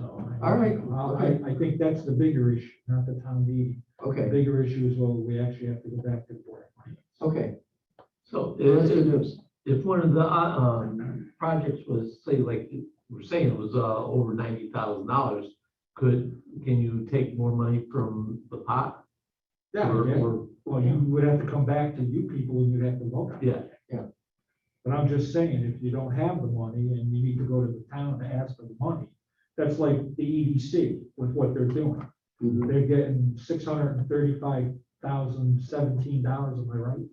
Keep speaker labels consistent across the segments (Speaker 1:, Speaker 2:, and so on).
Speaker 1: All right,
Speaker 2: Well,
Speaker 1: okay.
Speaker 2: I, I think that's the bigger issue, not the town meeting. The
Speaker 1: Okay,
Speaker 2: bigger issue is whether we actually have to go back to the board.
Speaker 1: okay,
Speaker 3: So
Speaker 1: well, let's
Speaker 3: if,
Speaker 1: do
Speaker 3: if,
Speaker 1: this.
Speaker 3: if one of the, uh, um, projects was, say, like you we're saying, it was, uh, over ninety thousand dollars, could, can you take more money from the pot?
Speaker 2: Yeah,
Speaker 3: Or-
Speaker 2: yeah.
Speaker 3: or-
Speaker 2: well, you would have to come back to you people and you'd have to vote on it.
Speaker 3: Yeah,
Speaker 2: But I'm just saying, if you don't have the money and you need to go to the town to ask for the money, that's like the EDC with what they're doing.
Speaker 1: Mhm.
Speaker 2: They're getting six hundred and thirty-five thousand seventeen dollars, am I right?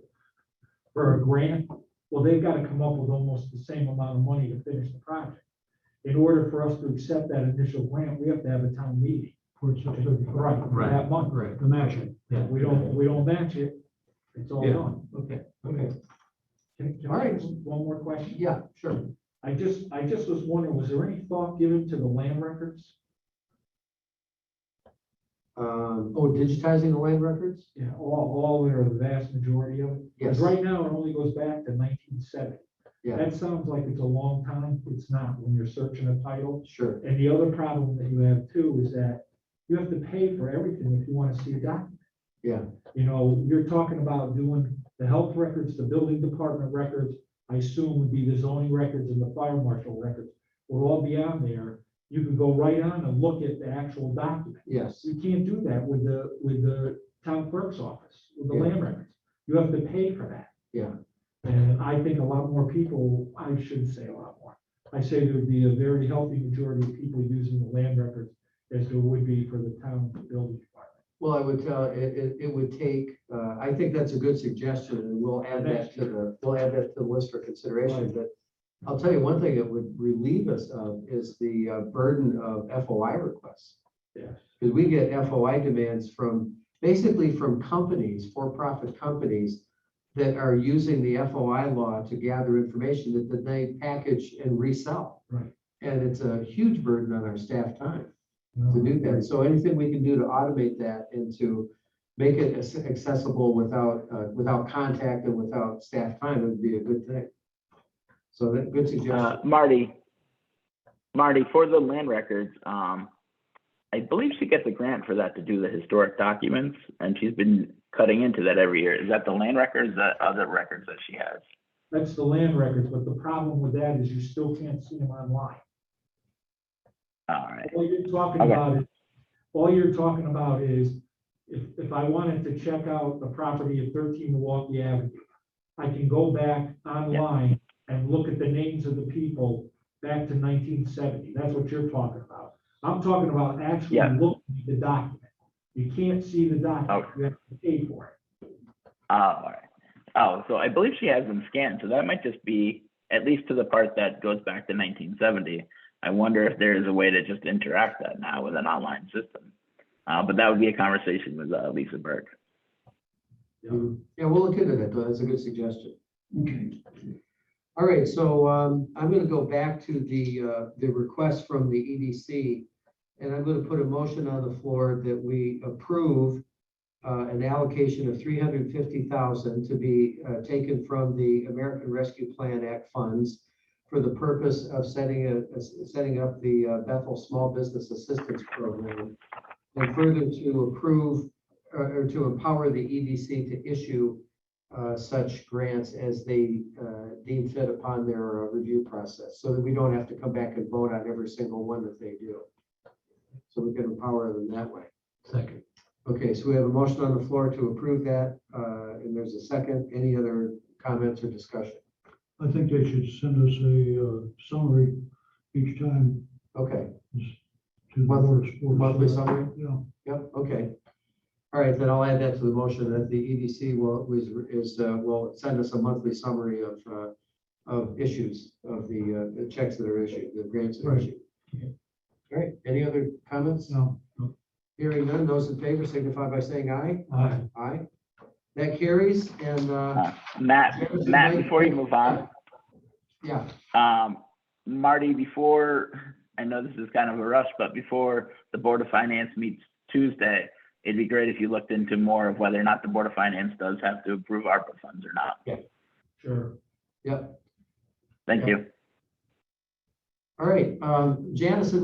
Speaker 2: For a grant, well, they've got to come up with almost the same amount of money to finish the project. In order for us to accept that initial grant, we have to have a town meeting. Right, for
Speaker 3: Right.
Speaker 2: that month. Right, the matching.
Speaker 3: Yeah.
Speaker 2: We don't, we don't match it, it's all
Speaker 3: Yeah.
Speaker 2: done.
Speaker 3: okay.
Speaker 1: Okay,
Speaker 2: Can can
Speaker 1: All
Speaker 2: I
Speaker 1: right.
Speaker 2: ask one more question?
Speaker 1: yeah, sure.
Speaker 2: I just, I just was wondering, was there any thought given to the land records?
Speaker 1: Um, oh, digitizing the land records?
Speaker 2: Yeah, all, all or the vast majority of it?
Speaker 1: Yes.
Speaker 2: Because right now, it only goes back to nineteen seventy.
Speaker 1: Yeah.
Speaker 2: That sounds like it's a long time. It's not when you're searching a title.
Speaker 1: Sure,
Speaker 2: And the other problem that you have too is that you have to pay for everything if you want to see a document.
Speaker 1: Yeah.
Speaker 2: You know, you're talking about doing the health records, the building department records, I assume would be the zoning records and the fire marshal records. Will all be on there. You can go right on and look at the actual document.
Speaker 1: yes,
Speaker 2: You can't do that with the, with the town clerk's office, with the
Speaker 1: Yeah.
Speaker 2: land records. You have to pay for that.
Speaker 1: Yeah.
Speaker 2: And I think a lot more people, I shouldn't say a lot more. I say there would be a very healthy majority of people using the land records as there would be for the town building department.
Speaker 1: well, I would tell, it, it, it would take, uh, I think that's a good suggestion, and we'll add that to the, we'll add that to the list for consideration, but I'll tell you one thing it would relieve us of is the uh, burden of FOI requests.
Speaker 2: Yes.
Speaker 1: Because we get FOI demands from, basically from companies, for-profit companies that are using the FOI law to gather information that that they package and resell.
Speaker 2: Right.
Speaker 1: And it's a huge burden on our staff time to do that. So anything we can do to automate that and to make it as- accessible without, uh, without contact and without staff time would be a good thing. So that, good
Speaker 4: Uh,
Speaker 1: suggestion.
Speaker 4: Marty, Marty, for the land records, um, I believe she gets a grant for that to do the historic documents, and she's been cutting into that every year. Is that the land records, or the other records that she has?
Speaker 2: That's the land records, but the problem with that is you still can't see them online.
Speaker 4: All right,
Speaker 2: All you're talking
Speaker 4: Okay.
Speaker 2: about is, all you're talking about is, if, if I wanted to check out the property at thirteen Milwaukee Avenue, I can go back online and look at the names of the people back to nineteen seventy. That's what you're talking about. I'm talking about actually
Speaker 4: Yeah.
Speaker 2: looking at the document. You can't see the document. You have to pay for it.
Speaker 4: oh, all right. Oh, so I believe she has them scanned, so that might just be, at least to the part that goes back to nineteen seventy. I wonder if there is a way to just interact that now with an online system. Uh, but that would be a conversation with, uh, Lisa Burke.
Speaker 1: Mhm. Yeah, we'll look into that, though. That's a good suggestion. Okay. All right, so um, I'm going to go back to the, uh, the request from the EDC. And I'm going to put a motion on the floor that we approve uh, an allocation of three hundred fifty thousand to be uh, taken from the American Rescue Plan Act funds for the purpose of setting a, a- setting up the uh, Bethel Small Business Assistance Program. And further to approve uh, or or to empower the EDC to issue uh, such grants as they uh, deem fit upon their uh, review process, so that we don't have to come back and vote on every single one that they do. So we can empower them that way.
Speaker 3: Second.
Speaker 1: Okay, so we have a motion on the floor to approve that, uh, and there's a second. Any other comments or discussion?
Speaker 5: I think they should send us a uh, summary each time
Speaker 1: Okay,
Speaker 5: to the
Speaker 1: Monthly-
Speaker 5: board's. board's-
Speaker 1: monthly summary?
Speaker 5: Yeah,
Speaker 1: yep, okay. All right, then I'll add that to the motion that the EDC will, is, is, uh, will send us a monthly summary of, uh, of issues, of the, uh, the checks that are issued, the grants that are
Speaker 5: Right.
Speaker 1: issued. All right, any other comments?
Speaker 5: no, no.
Speaker 1: Hearing none, those in favor signify by saying aye.
Speaker 5: Aye.
Speaker 1: Aye. That carries, and, uh,
Speaker 4: Matt,
Speaker 1: James,
Speaker 4: Matt,
Speaker 1: Mike-
Speaker 4: before you move on,
Speaker 1: yeah,
Speaker 4: Um, Marty, before, I know this is kind of a rush, but before the Board of Finance meets Tuesday, it'd be great if you looked into more of whether or not the Board of Finance does have to approve ARPA funds or not.
Speaker 2: Sure.
Speaker 1: yep.
Speaker 4: Thank you.
Speaker 1: All right, um, Janice and